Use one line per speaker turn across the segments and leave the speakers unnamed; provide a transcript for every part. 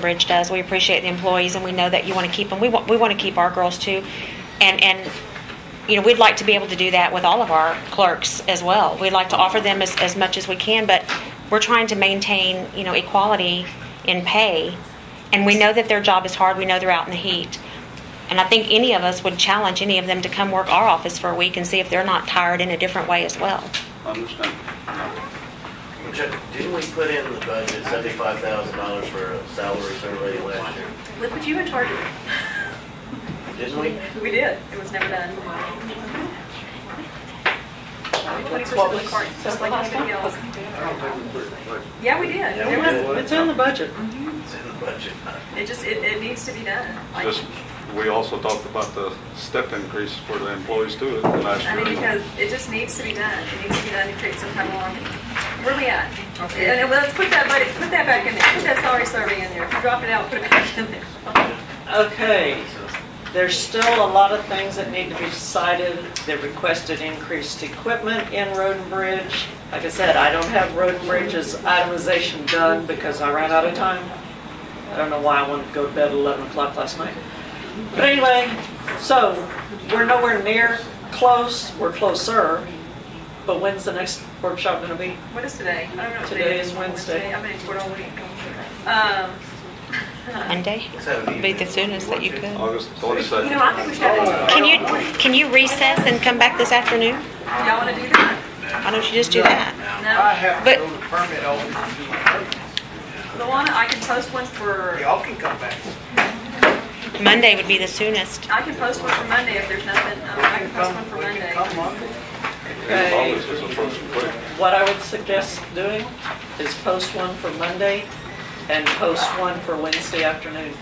Bridge does. We appreciate the employees, and we know that you want to keep them. We want, we want to keep our girls too, and and you know we'd like to be able to do that with all of our clerks as well. We'd like to offer them as, as much as we can, but we're trying to maintain you know equality in pay, and we know that their job is hard. We know they're out in the heat, and I think any of us would challenge any of them to come work our office for a week and see if they're not tired in a different way as well.
Understand.
Chuck, didn't we put in the budget seventy-five thousand dollars for a salary survey last year?
Look what you were targeting.
Didn't we?
We did. It was never done. Twenty percent of the card, just like anybody else. Yeah, we did.
Yeah,
There
we
was-
did.
It's in the budget.
It's in the budget.
It just, it, it needs to be done. Like,
Just, we also talked about the step increase for the employees too last
I mean,
year.
because it just needs to be done. It needs to be done to create some kind of harmony. Where we at? And and let's put that budget, put that back in there. Put that salary survey in there. If you drop it out, put it back in there.
Okay, there's still a lot of things that need to be decided. They requested increased equipment in Road and Bridge. Like I said, I don't have Road and Bridge's itemization done because I ran out of time. I don't know why I wanted to go to bed at 11 o'clock last night. But anyway, so we're nowhere near close, we're closer. But when's the next workshop gonna be?
What is today? I don't know. what
Today is Wednesday.
I've been in court all week. Um,
Monday be the soonest that you could.
August
You
twenty-second.
know, I think we should have, it.
Can you can you recess and come back this afternoon?
y'all want to do that?
Why don't you just do that?
No?
have
But-
the permit office.
Luana, I can post one for,
Y'all can come back.
Monday would be the soonest.
I can post one for Monday if there's nothing, um, I can post one for
We can
Monday.
come Monday.
August is approaching quick.
What I would suggest doing is post one for Monday and post one for Wednesday afternoon.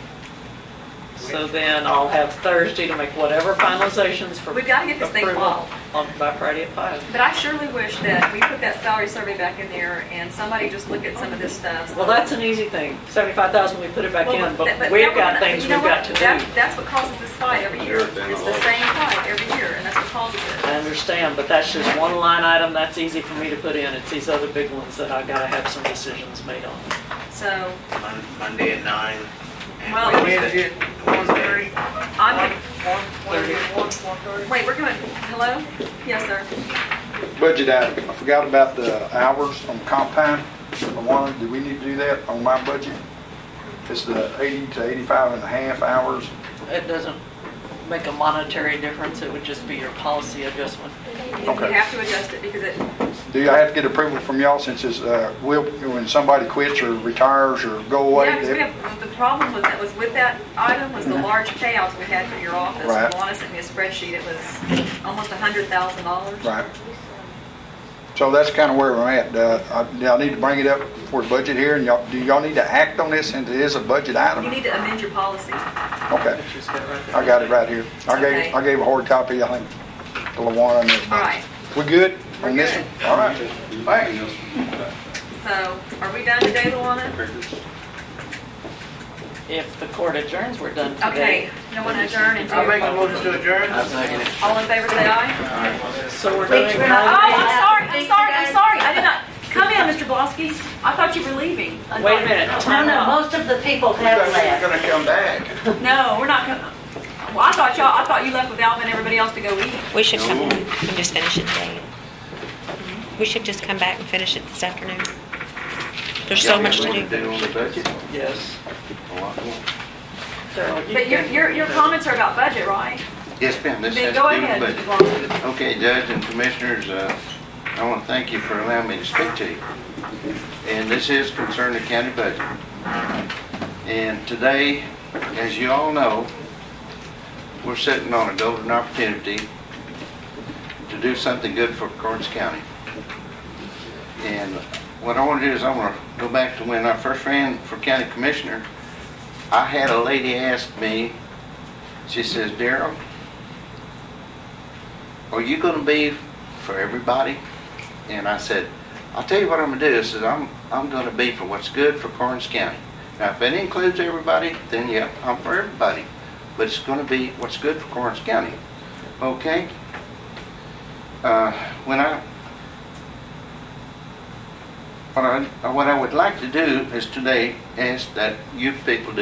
So then I'll have Thursday to make whatever finalizations for
We've gotta get this thing
approval
filed.
on, by Friday at five.
But I surely wish that we put that salary survey back in there and somebody just look at some of this stuff.
Well, that's an easy thing. Seventy-five thousand, we put it back
Well,
in,
that-
but
that
we've
one-
got
but
things
you
we've
know
got
what?
to
That's-
do.
That's what causes this fight every year.
You're down
It's the
the
same fight every year, and that's what causes
I
it.
understand, but that's just one line item. That's easy for me to put in. It's these other big ones that I gotta have some decisions made on.
So,
Mon- Monday at nine. and
Well,
Wednesday
Wednesday.
at one thirty.
I'm,
Wednesday at one, one thirty.
wait, we're going, hello? Yes, sir.
Budget item, I forgot about the hours on comp time. I wanted, do we need to do that on my budget? It's the 80 to 85 and a half hours.
It doesn't make a monetary difference, it would just be your policy adjustment.
You
Okay.
have to adjust it because it,
Do I have to get approval from y'all since it's, uh, will, when somebody quits or retires or go away?
Yeah, 'cause we have, um, the problem with that was with that item was the large payouts we had for your office.
Mm-hmm. Right.
Luana sent me a spreadsheet, it was almost a hundred thousand dollars.
Right. So that's kind of where we're at. Uh, I- Now, I need to bring it up for budget here, and y'all, do y'all need to act on this since it is a budget item?
You need to amend your policy.
Okay,
She's got it right there.
I got it right here. I
Okay.
gave, I gave a hard copy, I think, to LaWanda and
All
everybody.
right,
We good
We're
on this
good.
one? All right. Thanks.
so are we done today, Luana?
If the court adjourns, we're done
Okay,
today.
no one adjourn and do.
I make a motion to adjourn.
I'm second it.
All in favor, say aye.
So we're doing
Oh, I'm
holiday.
sorry, I'm sorry, I'm sorry, I did not, come in, Mr. Blosky, I thought you were leaving. I
Wait a
thought-
minute,
No,
time
no,
out.
most of the people have left.
Gonna come back.
No, we're not gonna, well, I thought y'all, I thought you left with Alvin and everybody else to go eat.
We should come and just finish it today. We should just come back and finish it this afternoon. There's so much to do.
on the budget?
Yes.
A lot more.
Daryl, you
But your,
can-
your, your comments are about budget, right?
Yes, ma'am, this
Then
has
go
to do
ahead,
with
Mr.
budget.
Blosky.
Okay, Judge and Commissioners, uh, I want to thank you for allowing me to speak to you. And this is concerning the county budget. And today, as you all know, we're sitting on a golden opportunity to do something good for Karnes County. And what I want to do is I want to go back to when I first ran for county commissioner. I had a lady ask me, she says, Daryl, are you going to be for everybody? And I said, I'll tell you what I'm going to do. I said, I'm, I'm going to be for what's good for Karnes County. Now, if that includes everybody, then yeah, I'm for everybody. But it's going to be what's good for Karnes County. Okay? Uh, when I, What I, what I would like to do is today ask that you people